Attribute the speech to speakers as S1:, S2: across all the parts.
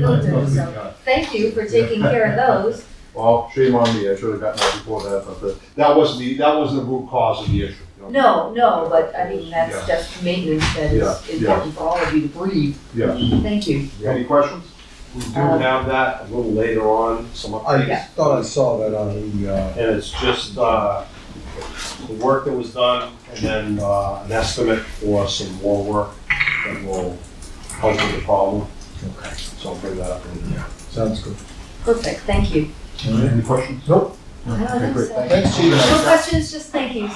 S1: building, so thank you for taking care of those.
S2: Well, shame on me, I should have gotten that before that, but the-
S3: That was the, that was the root cause of the issue. you know?
S1: No, no, but I mean, that's just maintenance that is
S2: Yeah, yeah.
S1: important for all of you to breathe.
S2: yes.
S1: Thank you.
S2: Any questions?
S4: We do
S1: Um,
S4: have that a little later on, some
S1: oh,
S5: I
S4: updates.
S5: thought I saw that on the, uh,
S4: And it's just, uh, the work that was done and then, uh, an estimate for some more work that will help with the problem.
S5: Okay.
S4: So I'll bring that up in there.
S5: sounds good.
S1: Perfect, thank you.
S2: Any questions? Nope.
S1: I don't think so.
S5: Thanks, Chief.
S1: No questions, just thank yous.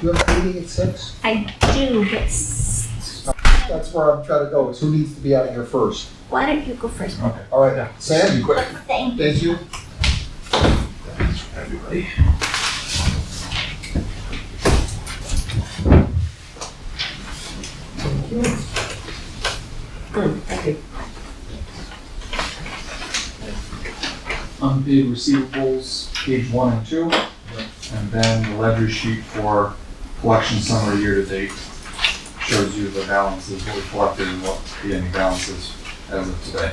S5: You have a meeting at six?
S6: I do, but s-
S5: That's where I'm trying to go, is who needs to be out of here first?
S6: why don't you go first?
S5: All right, Sam?
S6: Thank
S5: Thank you.
S1: Good, thank you.
S7: unpaid receivables, page one and two. And then the ledger sheet for collection summary year-to-date shows you the balances, what we collected and what the ending balance is as of today.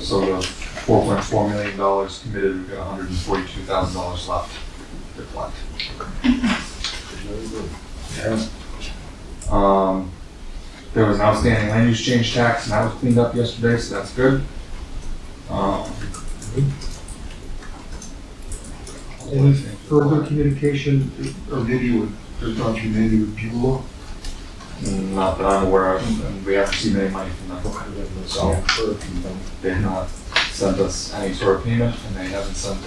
S7: So the four point four million dollars committed, we've got hundred and forty-two thousand dollars left to collect. Um, there was an outstanding land use change tax, and that was cleaned up yesterday, so that's good. Um,
S8: Any further communication or video with, or documentary with Bueller?
S7: Not that I'm aware of, and we haven't seen any money from them. So they've not sent us any sort of payment, and they haven't sent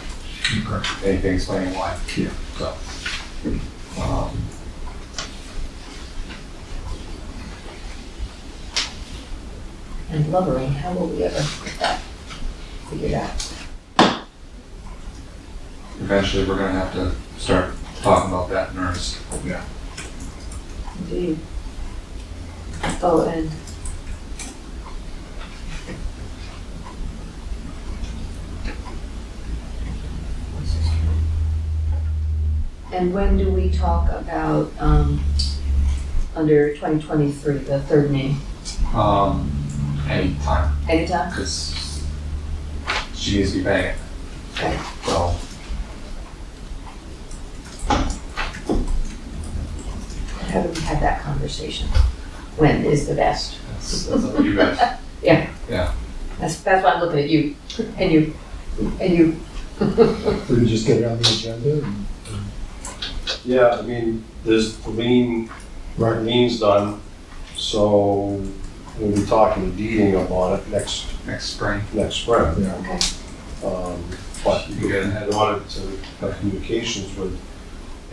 S7: anything explaining why. Yeah. So. um,
S1: And lumbering, how will we ever get that figured out?
S7: Eventually, we're gonna have to start talking about that in earnest.
S1: Indeed. Oh, and And when do we talk about, um, under twenty twenty-three, the third name?
S7: Um, anytime,
S1: Anytime?
S7: because she needs to be paying
S1: Okay.
S7: it. So,
S1: How do we have that conversation? When is the best?
S7: that's, that's up to you guys.
S1: That's, that's why I'm looking at you, and you, and you.
S5: We can just get it on the agenda and.
S4: Yeah, I mean, there's the lean, lean's done, so we'll be talking to Deeding about it next,
S7: next spring.
S4: next spring.
S5: Yeah.
S1: Okay.
S4: Um, But
S7: You get ahead.
S4: in order to have communications with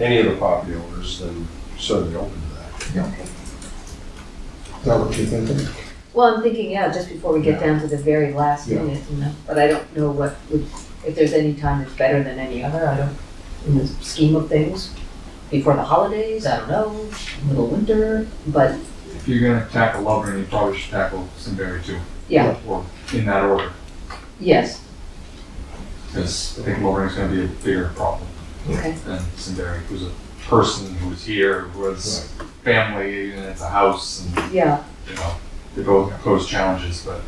S4: any of the property owners, then certainly open to that.
S5: Is that what you're thinking?
S1: Well, I'm thinking, yeah, just before we get down to the very last
S5: Yeah.
S1: minute, you know, but I don't know what would, if there's any time that's better than any other, I don't, in the scheme of things. Before the holidays, I don't know, middle of winter, but,
S7: If you're gonna tackle Lovren, you probably should tackle Simberry too.
S1: Yeah.
S7: Or in that order,
S1: yes,
S7: because I think Lovren's gonna be a bigger problem
S1: okay,
S7: than Simberry, who's a person who's here, who has family, and it's a house, and,
S1: yeah.
S7: you know, they both pose challenges, but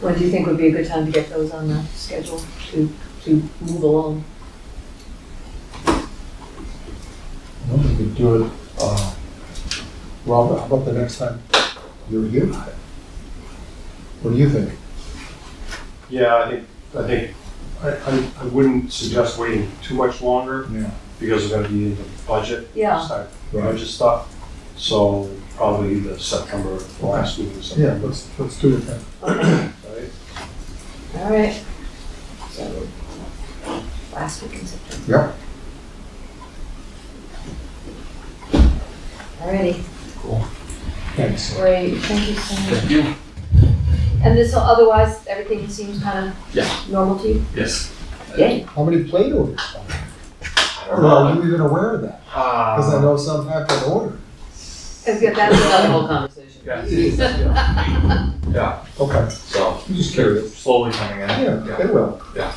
S1: When do you think would be a good time to get those on the schedule to, to move along?
S5: Well, we could do it, uh, Robert, how about the next time you're here? What do you think?
S4: Yeah, I think, I think, I, I, I wouldn't suggest waiting too much longer
S5: Yeah.
S4: because we're gonna be in the budget.
S1: Yeah.
S4: start
S5: Right,
S4: Budget stuff, so probably the September, the last meeting, in
S5: yeah,
S4: September.
S5: let's, let's do it then.
S1: Okay,
S4: right?
S1: all right. So, last week in September,
S5: Yep.
S1: all righty.
S5: Thanks.
S1: Great, thank you so much. Thank you. And this, otherwise, everything seems kind of normal to you?
S7: yes.
S1: Yay.
S5: How many plate orders? Or
S4: Uh,
S5: are you even aware of that? Because I know some have been ordered.
S1: That's another whole conversation.
S7: Yeah.
S5: Yeah.
S7: Yeah,
S5: Okay,
S7: so
S5: Uh-huh. I'm just curious.
S7: slowly coming in.
S5: Yeah, they will.
S7: Yeah.